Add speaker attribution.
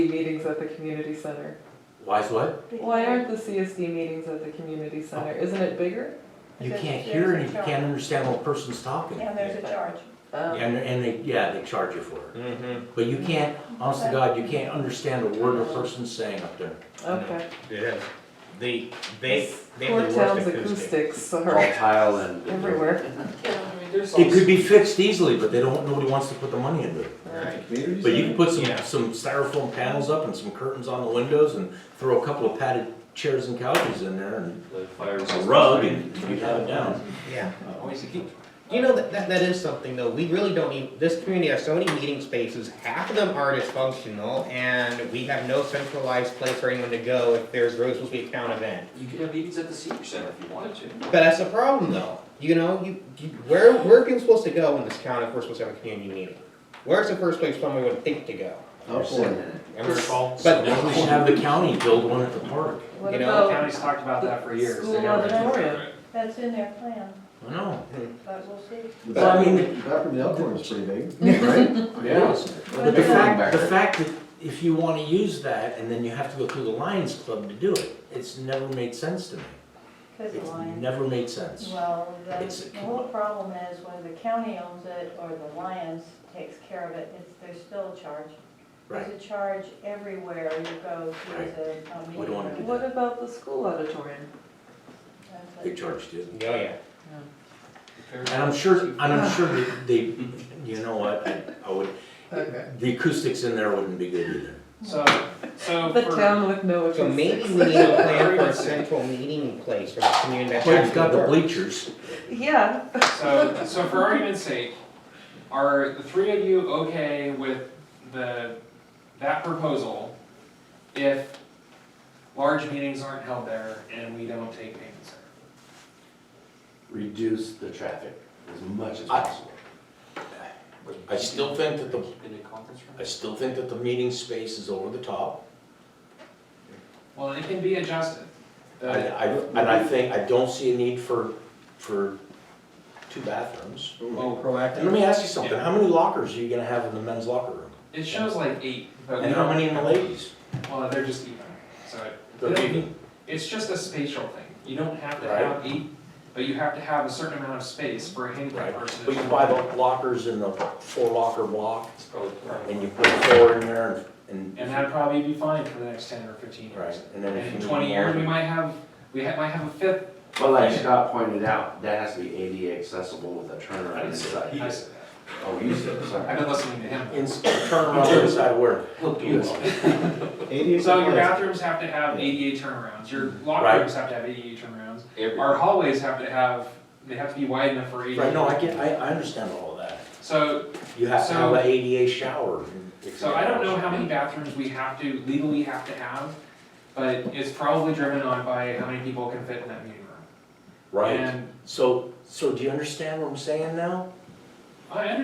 Speaker 1: meetings at the community center.
Speaker 2: Why's what?
Speaker 1: Why aren't the CSD meetings at the community center? Isn't it bigger?
Speaker 2: You
Speaker 3: Because
Speaker 2: can't
Speaker 3: there's
Speaker 2: hear
Speaker 3: a
Speaker 2: and you
Speaker 3: charge.
Speaker 2: can't understand what a person's talking.
Speaker 3: And there's a charge.
Speaker 1: Um,
Speaker 2: And, and they, yeah, they charge you for it.
Speaker 4: Mm-hmm,
Speaker 2: But you can't, honest to God, you can't understand a word a person's saying up there.
Speaker 1: Okay.
Speaker 4: yeah. They, they, they
Speaker 1: Poor
Speaker 4: have the
Speaker 1: town's
Speaker 4: worst acoustic.
Speaker 1: acoustics
Speaker 5: all
Speaker 1: are
Speaker 5: tile and.
Speaker 1: everywhere.
Speaker 2: It could be fixed easily, but they don't, nobody wants to put the money into it.
Speaker 4: Right.
Speaker 5: Meters?
Speaker 2: But you can put some,
Speaker 4: Yeah.
Speaker 2: some styrofoam panels up and some curtains on the windows and throw a couple of padded chairs and couches in there and
Speaker 5: The fire.
Speaker 2: a rug and you have it down.
Speaker 4: Yeah,
Speaker 5: Always a key.
Speaker 4: you know, that, that, that is something though, we really don't need, this community has so many meeting spaces, half of them are dysfunctional, and we have no centralized place for anyone to go if there's really supposed to be a town event.
Speaker 5: You could have meetings at the senior center if you wanted to.
Speaker 4: But that's a problem though, you know, you, you, where, where are people supposed to go in this town if we're supposed to have a community meeting? Where's the first place someone would think to go? And we're-
Speaker 2: So
Speaker 4: But-
Speaker 2: maybe we should have the county build one at the park.
Speaker 1: What
Speaker 4: You
Speaker 5: The
Speaker 4: know,
Speaker 1: about
Speaker 5: county's talked about that for years.
Speaker 1: Oh. school
Speaker 5: They never-
Speaker 1: auditorium?
Speaker 3: That's in their plan,
Speaker 2: I know.
Speaker 3: but we'll see.
Speaker 6: The
Speaker 2: Well, I
Speaker 6: back
Speaker 2: mean-
Speaker 6: the back of the Elkhorn is pretty big, right?
Speaker 5: Yeah.
Speaker 6: Or
Speaker 2: But
Speaker 6: the
Speaker 2: the
Speaker 6: big one
Speaker 2: fact,
Speaker 6: back
Speaker 2: the
Speaker 6: there.
Speaker 2: fact that if you wanna use that and then you have to go through the Lions Club to do it, it's never made sense to me.
Speaker 3: Because the
Speaker 2: It's
Speaker 3: Lions,
Speaker 2: never made sense.
Speaker 3: well, the,
Speaker 2: It's-
Speaker 3: the whole problem is when the county owns it or the Lions takes care of it, it's, there's still a charge.
Speaker 2: Right,
Speaker 3: There's a charge everywhere you go to
Speaker 2: Right.
Speaker 3: the, a meeting.
Speaker 2: We don't wanna do
Speaker 1: What about the school auditorium?
Speaker 3: That's
Speaker 2: they
Speaker 3: it.
Speaker 2: charged you.
Speaker 4: Oh yeah.
Speaker 2: And I'm sure, and I'm sure that they, you know what, I, I would,
Speaker 1: Okay.
Speaker 2: the acoustics in there wouldn't be good either.
Speaker 5: So, so
Speaker 1: The
Speaker 5: for,
Speaker 1: town with no
Speaker 4: Oh, So maybe
Speaker 1: acoustics.
Speaker 4: we need a plan for a central meeting place for the community that
Speaker 2: Well,
Speaker 4: has
Speaker 2: you've got the
Speaker 4: work.
Speaker 2: bleachers.
Speaker 1: Yeah.
Speaker 5: so, so for argument's sake, are the three of you okay with the, that proposal if large meetings aren't held there and we don't take payments there?
Speaker 7: reduce the traffic as much as
Speaker 2: I-
Speaker 7: possible.
Speaker 2: I still think that the,
Speaker 5: In a conference room?
Speaker 2: I still think that the meeting space is over the top.
Speaker 5: Well, it can be adjusted.
Speaker 2: I,
Speaker 5: The-
Speaker 2: I, and I think, I don't see a need for, for two bathrooms.
Speaker 5: well,
Speaker 2: And let me ask you something, how many lockers are you gonna have in the men's locker room?
Speaker 5: It shows like eight, but we
Speaker 2: And how
Speaker 5: don't-
Speaker 2: many in the ladies?
Speaker 5: Well, they're just even, so it-
Speaker 2: They're
Speaker 5: they don't
Speaker 2: even.
Speaker 5: need- it's just a spatial thing. You don't have to have eight, but you have to have a certain amount of space for a
Speaker 2: Right,
Speaker 5: handicap person.
Speaker 2: but you buy the lockers in the four locker block,
Speaker 5: Right.
Speaker 2: and you put four in there, and,
Speaker 5: And that'd probably be fine for the next ten or fifteen
Speaker 2: right,
Speaker 5: years.
Speaker 2: and then
Speaker 5: And
Speaker 2: if you
Speaker 5: in
Speaker 2: need
Speaker 5: twenty years, we
Speaker 2: more-
Speaker 5: might have, we ha- might have a fifth.
Speaker 7: But like Scott pointed out, that has to be ADA accessible with a turnaround inside.
Speaker 5: I said that.
Speaker 7: Oh, you said, sorry.
Speaker 5: I've been listening to him.
Speaker 2: In, turn around inside where?
Speaker 7: He'll do this.
Speaker 6: Eighty-eight
Speaker 5: So your
Speaker 6: compliance.
Speaker 5: bathrooms have to have ADA turnarounds, your locker
Speaker 2: Mm-hmm. Right.
Speaker 5: rooms have to have ADA turnarounds, our hallways have to have, they have to be wide enough for ADA.
Speaker 2: Right, no, I get, I, I understand all of that.
Speaker 5: So
Speaker 2: You have to have
Speaker 5: So-
Speaker 2: an ADA shower. and-
Speaker 5: So I don't know how many bathrooms we have to, legally have to have, but it's probably driven on by how many people can fit in that meeting room.
Speaker 2: Right,
Speaker 5: And
Speaker 2: so, so do you understand what I'm saying now?
Speaker 5: I